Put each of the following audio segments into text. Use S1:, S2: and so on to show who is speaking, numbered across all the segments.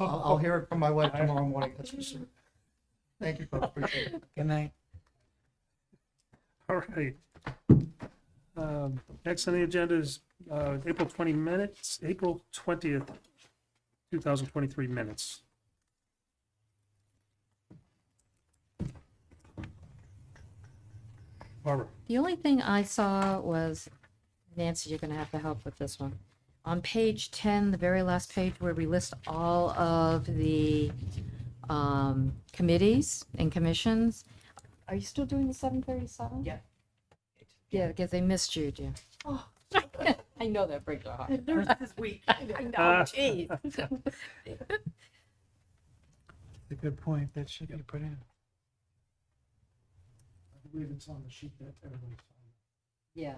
S1: Oh,
S2: I'll, I'll hear it from my wife tomorrow morning, that's for sure. Thank you, folks, appreciate it.
S1: Good night.
S3: All right. Um, Next on the agenda is uh, April 20 minutes, April 20th, 2023 minutes. Barbara,
S4: The only thing I saw was, Nancy, you're gonna have to help with this one. On page ten, the very last page where we list all of the um committees and commissions. Are you still doing the seven thirty-seven?
S5: Yeah.
S4: Yeah, because they missed you, dear. Oh. I know that breaks your heart.
S5: Nurses Week.
S3: Ah.
S5: No, geez.
S1: A good point. That should be put in.
S3: I believe it's on the sheet that everybody signed.
S4: Yeah.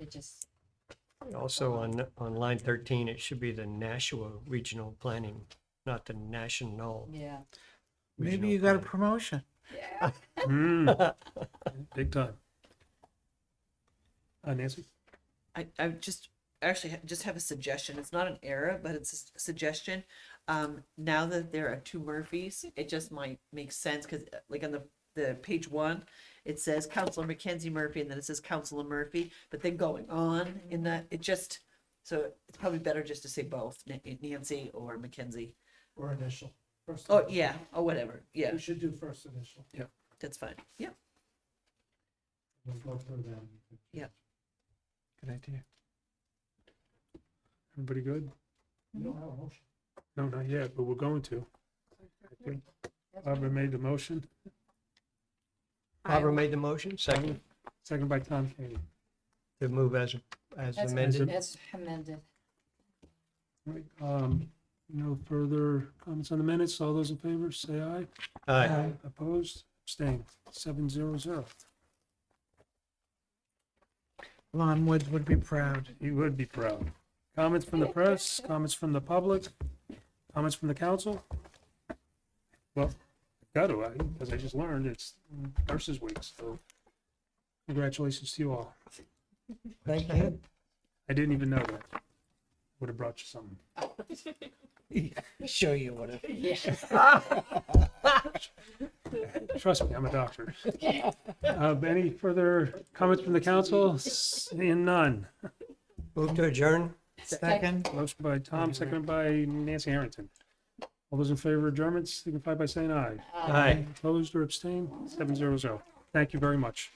S4: It just,
S6: Also on, on line thirteen, it should be the Nashua Regional Planning, not the National.
S4: yeah.
S1: Maybe
S6: Regional
S1: you got a
S6: Planning.
S1: promotion.
S3: Hmm, Big time. Uh, Nancy?
S5: I, I would just actually ha- just have a suggestion. It's not an error, but it's a s- suggestion. Um, now that there are two Murphys, it just might make sense because, like on the the page one, it says Counselor Mackenzie Murphy, and then it says Counselor Murphy. But then going on in that, it just so it's probably better just to say both Na- Nancy or Mackenzie.
S2: Or initial. First
S5: Oh
S2: initial.
S5: yeah, or whatever. Yeah,
S2: We should do first initial.
S5: that's fine. Yeah.
S2: We'll go through them.
S1: Good idea.
S3: Everybody good?
S2: You don't have a motion.
S3: No, not yet, but we're going to. I think Barbara made the motion,
S6: Barbara made the motion, second,
S3: second by Tom Kenny.
S6: to move as, as
S4: That's-
S6: amended.
S4: That's amended.
S3: Right, um, no further comments on the minutes. All those in favor, say aye.
S6: Aye.
S3: Opposed, abstained, seven zero zero.
S1: Lon Woods would be proud.
S3: You would be proud. Comments from the press, comments from the public, comments from the council? Well, got to, because I just learned it's Nurses Week, so congratulations to you all.
S6: Thank you.
S3: I didn't even know that. Would have brought you something.
S1: Show you what. it-
S3: Trust me, I'm a doctor. Uh, Any further comments from the council? Seeing none.
S6: Move to adjourn.
S1: Second.
S3: Motion by Tom, seconded by Nancy Harrington. All those in favor of adjournments signify by saying aye.
S6: Aye.
S3: Opposed or abstained? Seven zero zero. Thank you very much.